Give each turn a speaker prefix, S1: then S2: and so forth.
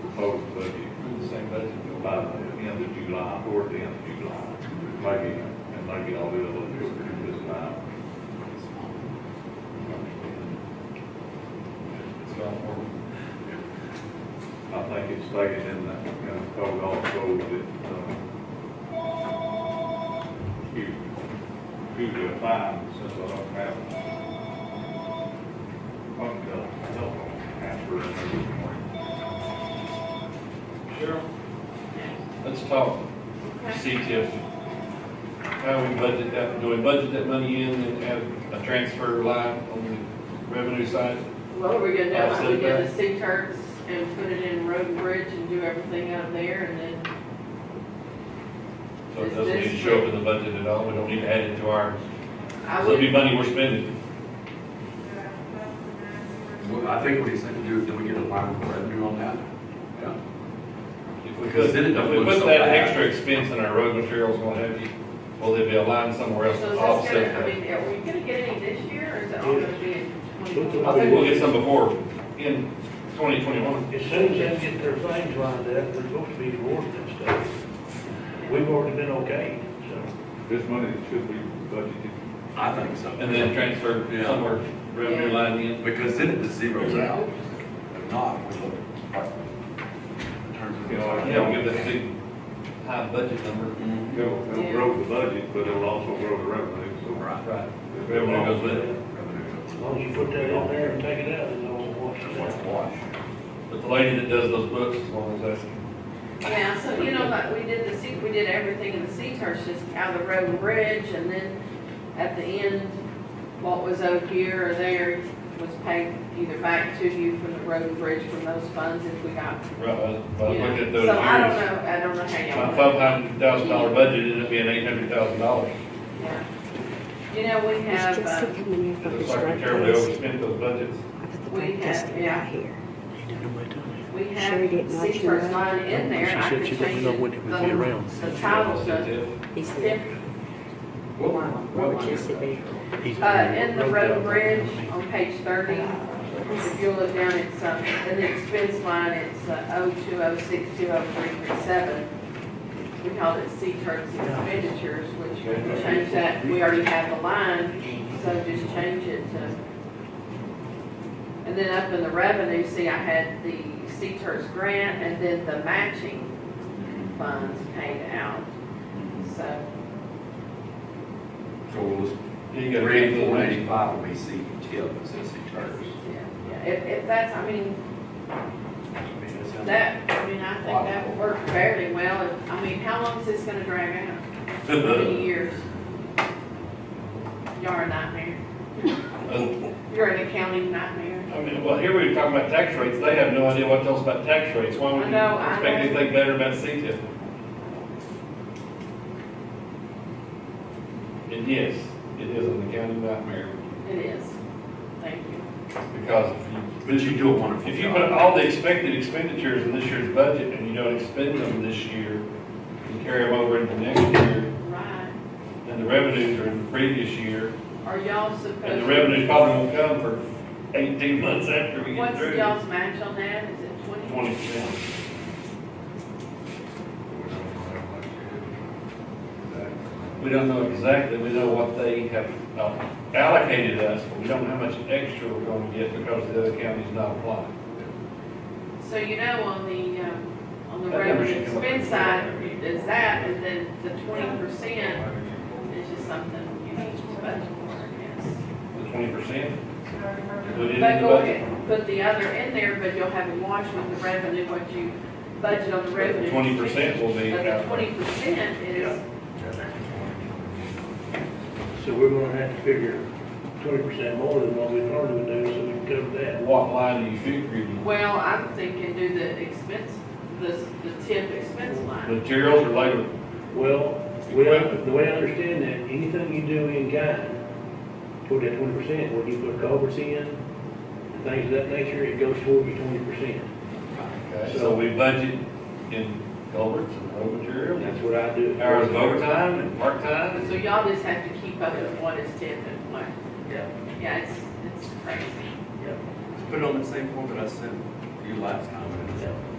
S1: proposed budget, the same budget, by the end of July, toward the end of July. Maybe, and maybe I'll do a little bit through this now. It's not I think it's stated in that, you know, code also that, um, you, you do a fine since I don't have phone bill, telephone answer in every morning.
S2: Cheryl, let's talk see if, how we budget that, do we budget that money in and have a transfer line on the revenue side?
S3: Well, we're gonna do it like we did the
S2: Offset
S3: sea turks and put it in road and bridge and do everything out of there and then,
S2: So it doesn't need to show up in the budget at all, we don't need to add it to our,
S3: I
S2: so it'd be
S3: would,
S2: money we're spending.
S4: Well, I think what he's saying, do, do we get a line for revenue on that? Yeah.
S2: If we
S4: Because
S2: put,
S4: then it don't
S2: if we
S4: look
S2: put
S4: so
S2: that
S4: bad.
S2: extra expense in our road materials, what have you, will there be a line somewhere else
S3: so
S2: to
S3: is that's
S2: offset
S3: gonna, I
S2: that?
S3: mean, are we gonna get any this year or is it all gonna be in
S2: I
S3: twenty-one?
S2: think we'll get some before, in twenty twenty-one.
S5: As soon as they get their things lined up, they're supposed to be divorced and stuff. We've already been okayed, so.
S1: This money should be budgeted.
S4: I think so.
S2: And then transfer
S4: Yeah.
S2: somewhere, revenue line in.
S4: Because then it just zeroes out. If not, we look. in terms of-
S1: You know, I
S2: Yeah, we give that big high budget number.
S4: Mhm.
S1: It'll, it'll grow the budget, but it'll also grow the revenue, so.
S4: Right.
S2: Right. Revenue goes with it.
S4: Revenue.
S5: As long as you put that on there and take it out, it's all washed
S4: Just like
S5: out.
S4: wash.
S2: But the lady that does those books, as long as that's,
S3: Yeah, so you know, like we did the sea, we did everything in the sea turks, just out of the road and bridge and then at the end, what was owed here or there was paid either back to you from the road and bridge from those funds if we got,
S2: right, I
S3: you
S2: was
S3: know.
S2: looking at
S3: So I don't
S2: those years.
S3: know, I don't know how y'all.
S2: My
S3: do it.
S2: five hundred thousand dollar budget ended up being eight hundred thousand dollars.
S3: Yeah. You know, we
S6: It's
S3: have,
S6: just
S3: uh,
S6: the coming in
S2: It
S6: from the
S2: looks like we
S6: strike
S2: terribly
S6: list.
S2: overspent those budgets.
S6: I put the
S3: We
S6: bank
S3: have-
S6: estimate
S3: yeah.
S6: right here. I don't know what to do.
S3: we
S6: Sherry
S3: have
S6: didn't let you
S3: Seafar's
S6: know.
S3: line in there, and
S7: She
S3: I
S7: said
S3: could
S7: she
S3: change
S7: didn't know
S3: it.
S7: when it would be
S3: The-
S7: around.
S3: The title does,
S6: He's
S3: if,
S6: here.
S4: What
S6: Wow,
S4: line-
S6: what would
S4: line
S6: you
S4: is
S6: see
S4: that?
S6: there?
S7: He's-
S3: uh, in the road
S7: down.
S3: and bridge on page thirty, if you look down, it's, uh, in the expense line, it's, uh, oh two oh six two oh three three seven. We called it Seafar's expenditures, which we can change that, we already have the line, so just change it to. And then up in the revenue, see, I had the Seafar's grant and then the matching funds paid out, so.
S4: So we'll just,
S2: You gotta read
S4: three,
S2: the
S4: four,
S2: money.
S4: eighty-five will be C tip, it says C turns.
S3: Yeah, if, if that's, I mean,
S4: I mean, that's how-
S3: that, I mean, I think that would work fairly well, and, I mean, how long is this gonna drag out? How
S2: Uh,
S3: many years? You're a nightmare,
S2: Uh,
S3: you're an accounting nightmare.
S2: I mean, well, here we were talking about tax rates, they have no idea what tells about tax rates, why would
S3: I
S2: you
S3: know, I
S2: expect
S3: know.
S2: anything better about CTIP? And yes, it is an accounting nightmare,
S3: It is, thank you.
S2: because if you
S4: But you do a wonderful
S2: If you
S4: job.
S2: put all the expected expenditures in this year's budget and you don't expend them this year, and carry them over into next year,
S3: Right,
S2: and the revenues are in the previous year,
S3: are y'all
S2: and the
S3: supposed,
S2: revenues probably won't come for eighteen months after we get
S3: what's
S2: through.
S3: y'all's match on that, is it twenty?
S2: Twenty percent. We don't know exactly, we know what they have uh, allocated us, but we don't know how much extra we're gonna get because the other county's not applying.
S3: So you know, on the, um, on the
S2: That
S3: revenue
S2: number should come up.
S3: expense side, is that, and then the twenty percent is just something you need to budget for, I guess.
S2: The twenty percent, included in the
S3: But go
S2: budget.
S3: ahead, and put the other in there, but you'll have a wash with the revenue, what you budget on the revenue.
S2: Twenty percent will be.
S3: But
S2: out there.
S3: the twenty percent is,
S5: So we're gonna have to figure twenty percent more than what we normally would do, so we can cover that.
S2: What line do you figure in?
S3: well, I'm thinking do the expense, the, the tip expense line.
S2: Materials or labor?
S5: Well, we, the way I understand that, anything you do in kind, toward that twenty percent, when you put culverts in, and things of that nature, it goes toward your twenty percent.
S2: Okay, so we budget in culverts and road material,
S5: That's what I do.
S2: hours of overtime and part-time.
S3: So y'all just have to keep up with what is tip and what, yeah, it's, it's crazy.
S4: Just Put it on the same form that I sent you last time, and
S5: so.